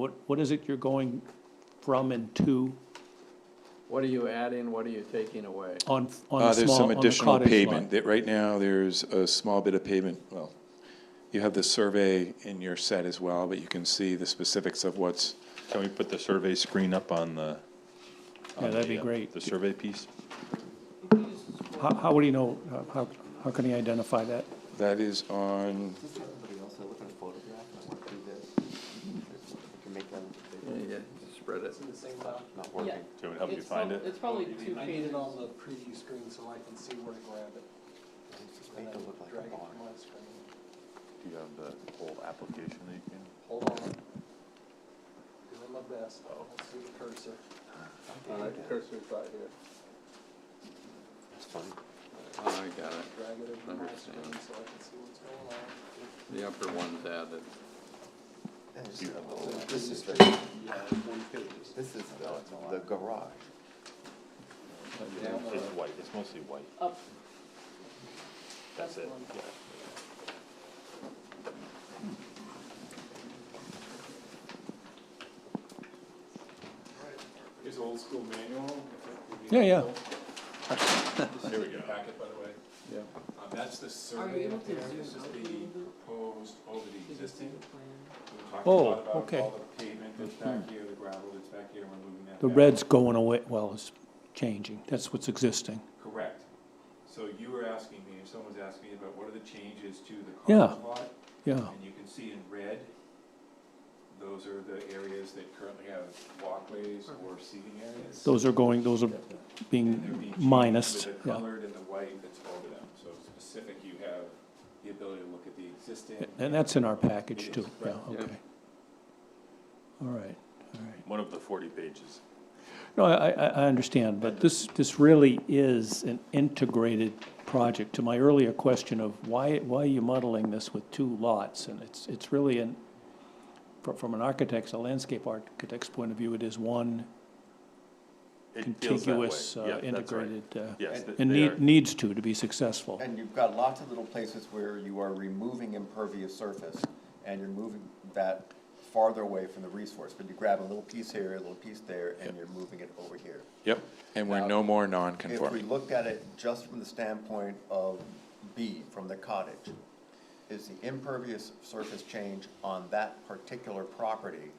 What, what is it you're going from and to What are you adding, what are you taking away? on, on Uh, the there's small, on some the additional cottage pavement. lot? That, right now, there's a small bit of pavement, well, you have the survey in your set as well, but you can see the specifics of what's, Can we put the survey screen up on the? Yeah, on that'd be the, uh, great. The survey piece? How, how would he know, uh, how, how can he identify that? that is on, Does everybody else, I look at a photograph and I want to do this? I can make that Yeah, yeah, spread it. not working. So it would help you find it? It's probably two I feet. need it on the preview screen so I can see where to grab it. Make and it then look like drag a it barn. to my screen. Do you have the whole application that you can? Hold on. Doing my best. Let's see the cursor. All right, cursor's right here. That's funny. Oh, I got it. Drag it over to my Understand. screen so I can see what's going on. The upper one's added. This is the, this is the, the garage. It's white, it's mostly white. Up. That's the it, one. yeah. Here's an old school manual. Yeah, yeah. Here we go. Packet, by the way. Yeah. Um, that's the Are you survey able up there, to this zoom is out a the little bit? proposed over the existing. We talked a Oh, lot about okay. Hmm. All the pavement that's back here, the gravel that's back here, we're moving that The back. red's going away, well, it's changing, that's what's existing. Correct. So you were asking me, if someone was asking me about what are the changes to the Yeah. cottage lot? Yeah, And you can see in red, those are the areas that currently have walkways or seating areas. those are going, those are And they're being being changed minus, With the yeah. colored and the white that's over them, so specific, you have the ability to look at the existing. And that's in our package It too, is, yeah, right. okay. All right, all right. One of the forty pages. No, I, I, I understand, but this, this really is an integrated project. To my earlier question of why, why are you modeling this with two lots? And it's, it's really an, from, from an architect's, a landscape architect's point of view, it is one It feels that way. contiguous, Yeah, uh, that's right. integrated, uh, Yes, th- and they need, are. needs to, to be successful. And you've got lots of little places where you are removing impervious surface, and you're moving that farther away from the resource, but you grab a little piece here, a little piece there, and you're moving it over here. yep, and Uh, we're no more non-conforming. If we looked at it just from the standpoint of B, from the cottage, is the impervious surface change on that particular property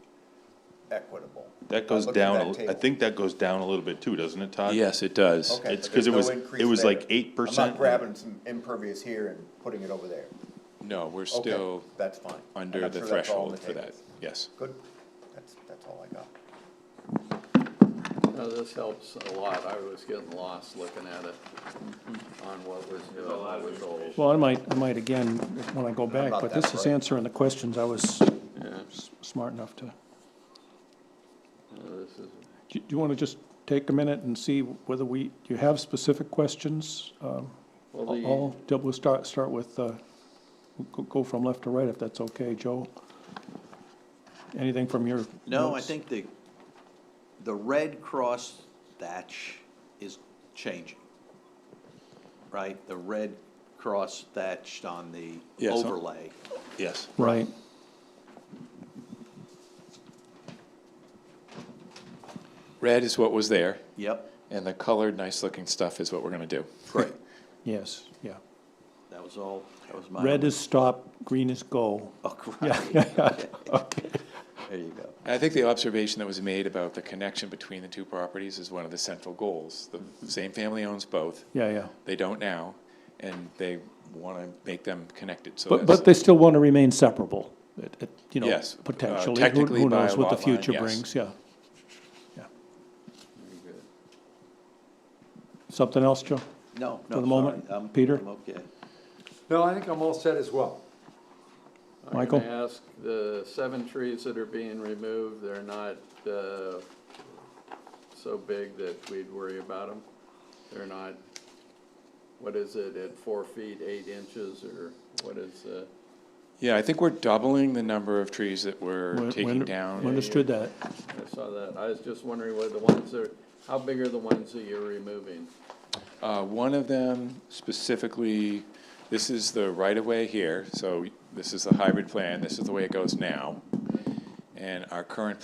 equitable? That goes I looked at down, that a l- I table. think that goes down a little bit too, doesn't it, Todd? Yes, it does. Okay, it's but 'cause it there's no was- increase it was like there. 8%. I'm not grabbing some impervious here and putting it over there. No, we're Okay, still That's fine. And under I'm the sure that's all on threshold the for that, tables. yes. Good, that's, that's all I got. Now, this helps a lot, I was getting lost looking at it on what was new, and what was old. Well, I might, I might again, when I go back, about but that this is bright. answering the questions I was Yeah, s- smart enough to. no, this is, Do do you want to just take a minute and see whether we, do you have specific questions? Um, well, I'll, the, I'll- we'll start, start with, uh, go- go from left to right if that's okay, Joe. Anything from your? No, I notes? think the, the red cross thatch is changing. Right, the red cross thatched on the Yes, on- overlay. Yes. Right. Red is what was there, Yep, and the colored, nice-looking stuff is what we're gonna do. great. Yes, yeah. That was all, that was my. Red only- is stop, green is go. Oh, great. Okay. There you go. I think the observation that was made about the connection between the two properties is one of the central goals. The same family owns both, Yeah, yeah. they don't now, and they wanna make them connected, so But, that's. but they still want to remain separable, it- it, you know, Yes, uh, potentially. Who- technically Who by knows what the lot line, future yes. brings, yeah. Yeah. very good. Something else, Joe? No, no, For the moment, sorry, I'm- Peter? I'm okay. No, I think I'm all set as well. Michael? I'm gonna ask, the seven trees that are being removed, they're not, uh, so big that we'd worry about them? They're not, what is it, at four feet, eight inches, or what is, uh, Yeah, I think we're doubling the number of trees that we're Win- taking win- down. Understood that. I saw that, I was just wondering what the ones are, how big are the ones that you're removing? Uh, one of them specifically, this is the right-of-way here, so this is the hybrid plan, this is the way it goes now. And our current